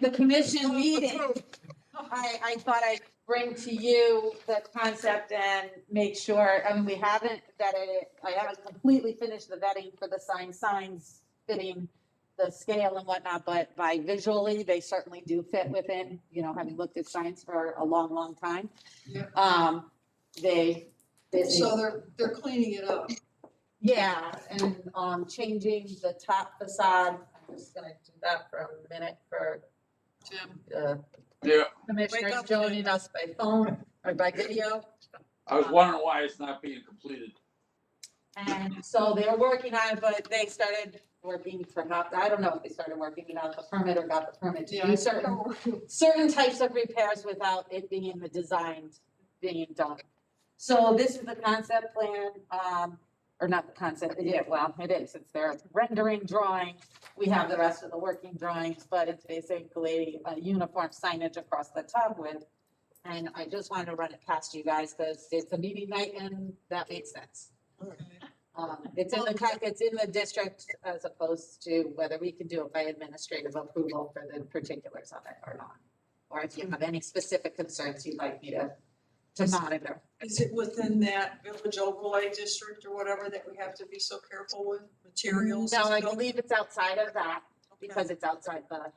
the commission meeting, I, I thought I'd bring to you the concept and make sure, I mean, we haven't vetted it. I haven't completely finished the vetting for the sign, signs fitting the scale and whatnot, but by visually, they certainly do fit within, you know, having looked at signs for a long, long time. Yeah. Um, they, they. So they're, they're cleaning it up. Yeah, and um changing the top facade, I'm just gonna do that for a minute for Tim, uh Yeah, commissioners up. joining us by phone or by video. I was wondering why it's not being completed. And so they were working on it, but they started working for not, I don't know if they started working without the permit or got the permit to yeah. do I- certain certain types of repairs without it being in the designed, being done. So this is the concept plan, um, or not the concept, yeah, well, it is, it's their rendering drawing. We have the rest of the working drawings, but it's basically a uniform signage across the top with. And I just wanted to run it past you guys, because it's a meeting night and that made sense. Um, it's in the, con- it's in the district as opposed to whether we can do it by administrative approval for the particulars of it or not. Or if you have any specific concerns you'd like me to, to monitor. Is it within that village overlay district or whatever that we have to be so careful with materials? No, and I stuff? believe it's outside of that Okay, because it's outside the,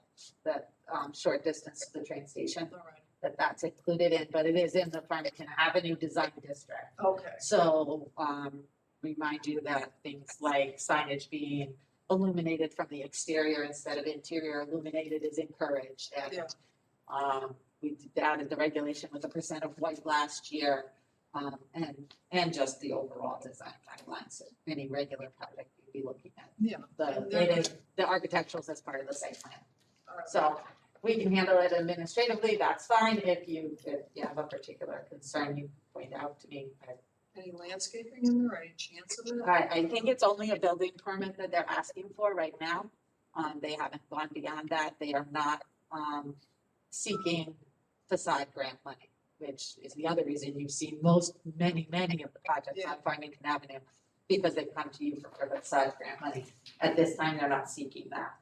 the, um, short distance to the train station all right. that that's included in, but it is in the Farmington Avenue Design District. Okay, So, um, remind you that things like signage being illuminated from the exterior instead of interior illuminated is encouraged and. Yeah. Um, we did- added the regulation with a percent of white last year, um, and, and just the overall design guidelines. that Any regular project you'd be looking at. Yeah. The, And it they're- is, the architecturals as part of the site plan. all right. So we can handle it administratively, that's fine. If you, if you have a particular concern, you point out to me. I Any landscaping in there, any chance of it? I, I think it's only a building permit that they're asking for right now. Um, they haven't gone beyond that. They are not, um, seeking facade grant money, which is the other reason you've seen most, many, many of the projects on Farmington Avenue because they've come to you for facade grant money. At this time, they're not seeking that.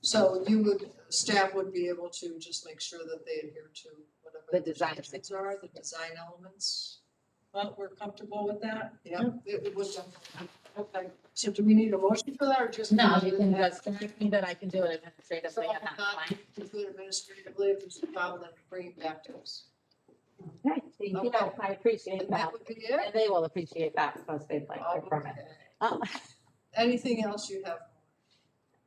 So you would, staff would be able to just make sure that they adhere to whatever. The design. standards are, the design elements. Well, we're comfortable with that? Yeah, it it was, done. okay. So do we need a motion for that or just? No, you can just, me that I can do it administratively. So, uh, If we administratively, if there's a problem, then bring it back to us. Thank you. I appreciate And that. that would be it? And they will appreciate that because they've like their permit. Okay. Um, Anything else you have?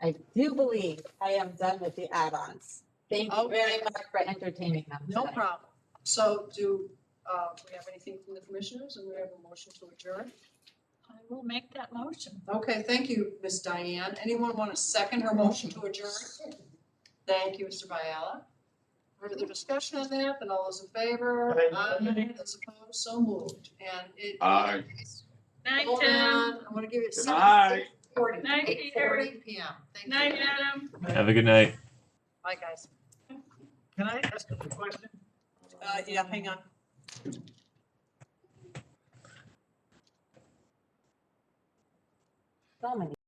I do believe I am done with the add-ons. Thank you very Okay. much for entertaining them No tonight. problem. So do, uh, we have anything from the commissioners and we have a motion to adjourn? I will make that motion. Okay, thank you, Ms. Diane. Anyone want to second her motion to adjourn? Thank you, Mr. Biella. Further discussion on that, then all those in favor? Aye. Aye. Those opposed, so moved. And it. Aye. Night, Hold Tim. on, I want to give it Good seven night. forty. Night, Eight Peter. forty P M. Thank you. Night, Adam. Have a good night. Bye, guys. Can I ask a question? Uh, yeah, hang on. So many